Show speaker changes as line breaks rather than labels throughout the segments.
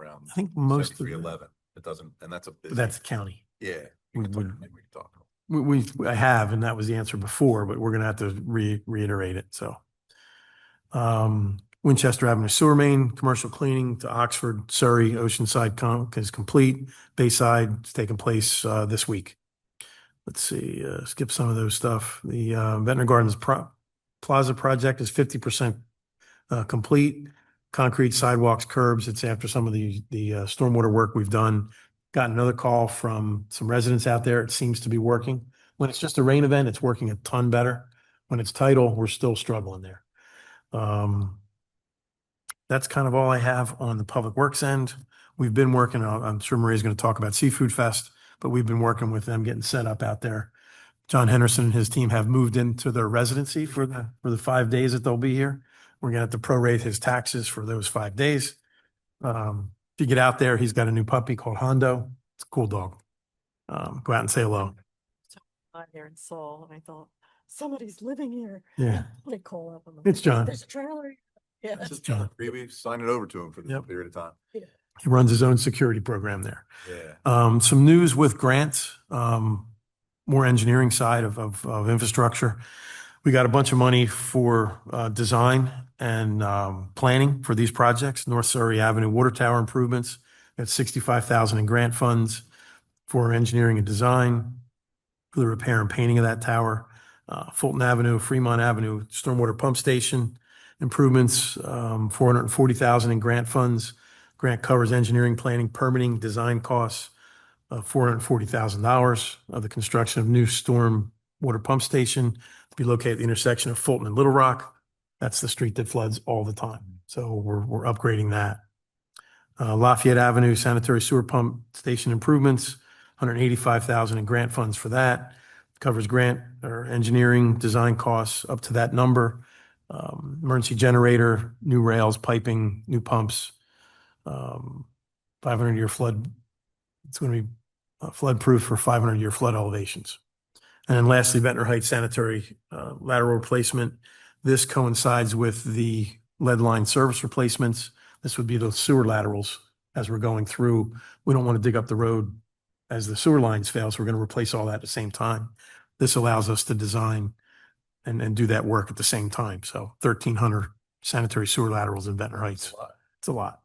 um,
I think most of,
Seventy-three
the-
eleven, it doesn't, and that's a. busy-
that's county.
Yeah.
we
We can talk,
would-
maybe we can talk.
We, we, I have, and that was the answer before, but we're gonna have to re- reiterate it, so. Um, Winchester Avenue Sewer Main, commercial cleaning to Oxford, Surrey, Oceanside com- is complete. Bayside is taking place, uh, this week. Let's see, uh, skip some of those stuff. The, uh, Ventnor Gardens Pro- Plaza project is fifty percent, uh, complete. Concrete sidewalks, curbs, it's after some of the, the, uh, stormwater work we've done. Got another call from some residents out there. It seems to be working. When it's just a rain event, it's working a ton better. When it's tidal, we're still struggling there. Um, that's kind of all I have on the public works end. We've been working, on- I'm sure Maria's going to talk about Seafood Fest, but we've been working with them getting set up out there. John Henderson and his team have moved into their residency for the, for the five days that they'll be here. We're going to have to prorate his taxes for those five days. Um, if you get out there, he's got a new puppy called Hondo. It's a cool dog. Um, go out and say hello.
by there in Seoul, and I thought, somebody's living here.
Yeah,
They call up. and I'm
it's
like,
John.
There's a trailer. here." Yeah.
This is
John.
Maybe sign it over to him for this
Yep.
period of time.
He runs his own security program there.
Yeah.
Um, some news with grants, um, more engineering side of, of, of infrastructure. We got a bunch of money for, uh, design and, um, planning for these projects, North Surrey Avenue Water Tower improvements. Got sixty-five thousand in grant funds for engineering and design, for the repair and painting of that tower. Uh, Fulton Avenue, Fremont Avenue, stormwater pump station improvements, um, four hundred and forty thousand in grant funds. Grant covers engineering, planning, permitting, design costs of four hundred and forty thousand dollars of the construction of new storm water pump station to be located at the intersection of Fulton and Little Rock. That's the street that floods all the time. So we're, we're upgrading that. Uh, Lafayette Avenue sanitary sewer pump station improvements, hundred and eighty-five thousand in grant funds for that. Covers grant or engineering, design costs up to that number. Um, emergency generator, new rails, piping, new pumps, um, 500 year flood. It's going to be uh, flood proof for 500 year flood elevations. And then lastly, Ventnor Heights sanitary uh, lateral replacement. This coincides with the lead line service replacements. This would be the sewer laterals as we're going through. We don't want to dig up the road as the sewer lines fail, so we're going to replace all that at the same time. This allows us to design and, and do that work at the same time. So 1,300 sanitary sewer laterals in Ventnor Heights.
It's a lot.
It's a lot.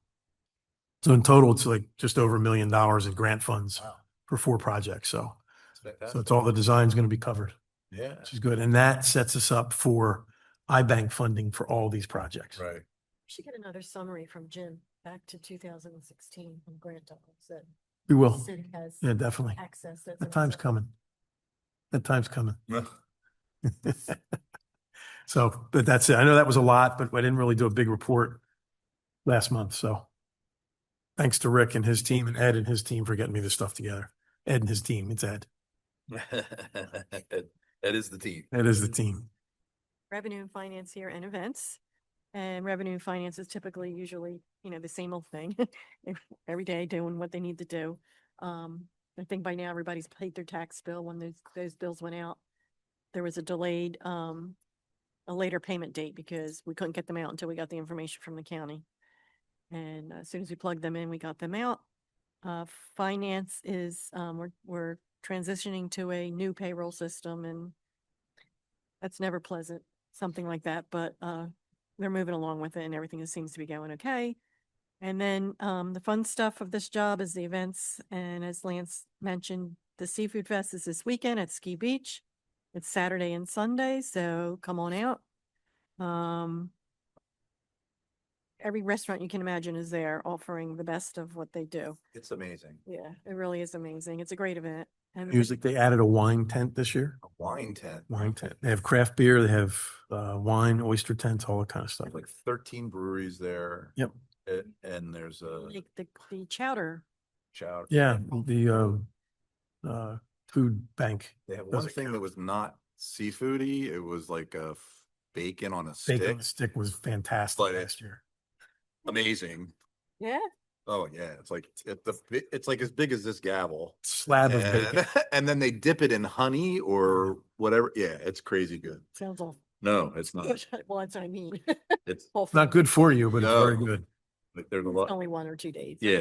So in total, it's like just over a million dollars in grant funds
Mm-hmm. Wow.
for four projects. So,
It's fantastic.
so it's all the design's going to be covered,
Yeah,
which is good. And that sets us up for iBank funding for all these projects.
right.
We Should get another summary from Jim back to two thousand and sixteen on grant dollars that
We
the
will.
city has
Yeah, definitely.
access. as an
That time's
example.
coming. That time's coming.
Well,
So, but that's it. I know that was a lot, but I didn't really do a big report last month. So thanks to Rick and his team and Ed and his team for getting me this stuff together. Ed and his team. It's Ed.
That that is the team.
Ed is the team.
Revenue and finance here and events. And revenue and finance is typically usually, you know, the same old thing. ev- Every day doing what they need to do. Um, I think by now everybody's paid their tax bill when those, those bills went out. There was a delayed, um, a later payment date because we couldn't get them out until we got the information from the county. And uh, as soon as we plugged them in, we got them out. Uh, finance is, um, we're, we're transitioning to a new payroll system and that's never pleasant, something like that, but, uh, they're moving along with it and everything seems to be going okay. And then, um, the fun stuff of this job is the events. And as Lance mentioned, the Seafood Fest is this weekend at Ski Beach. It's Saturday and Sunday, so come on out. Um, every restaurant you can imagine is there offering the best of what they do.
It's amazing.
Yeah, it really is amazing. It's a great event. And the-
Music, they added a wine tent this year.
A wine tent,
wine tent. They have craft beer, they have uh, wine, oyster tents, all that kind of stuff.
There's like thirteen breweries there.
Yep.
A- And there's a
like the, the chowder
shout.
Yeah, the uh, uh, food bank,
They have
Those
one
are
thing that was not seafoody. It was like a f- bacon on a
bacon on
stick.
the stick was fantastic
Like it.
last year.
Amazing.
Yeah.
Oh, yeah. It's like, it's the, bi- it's like as big as this gavel.
Slab of bacon.
And, and then they dip it in honey or whatever. Yeah, it's crazy good.
Sounds all.
No, it's not.
Well, that's what I mean.
It's
Whole
Not
food.
good for you, but it's very
No.
good.
like, there's a
It's
lot.
Only one or two days.
Yeah,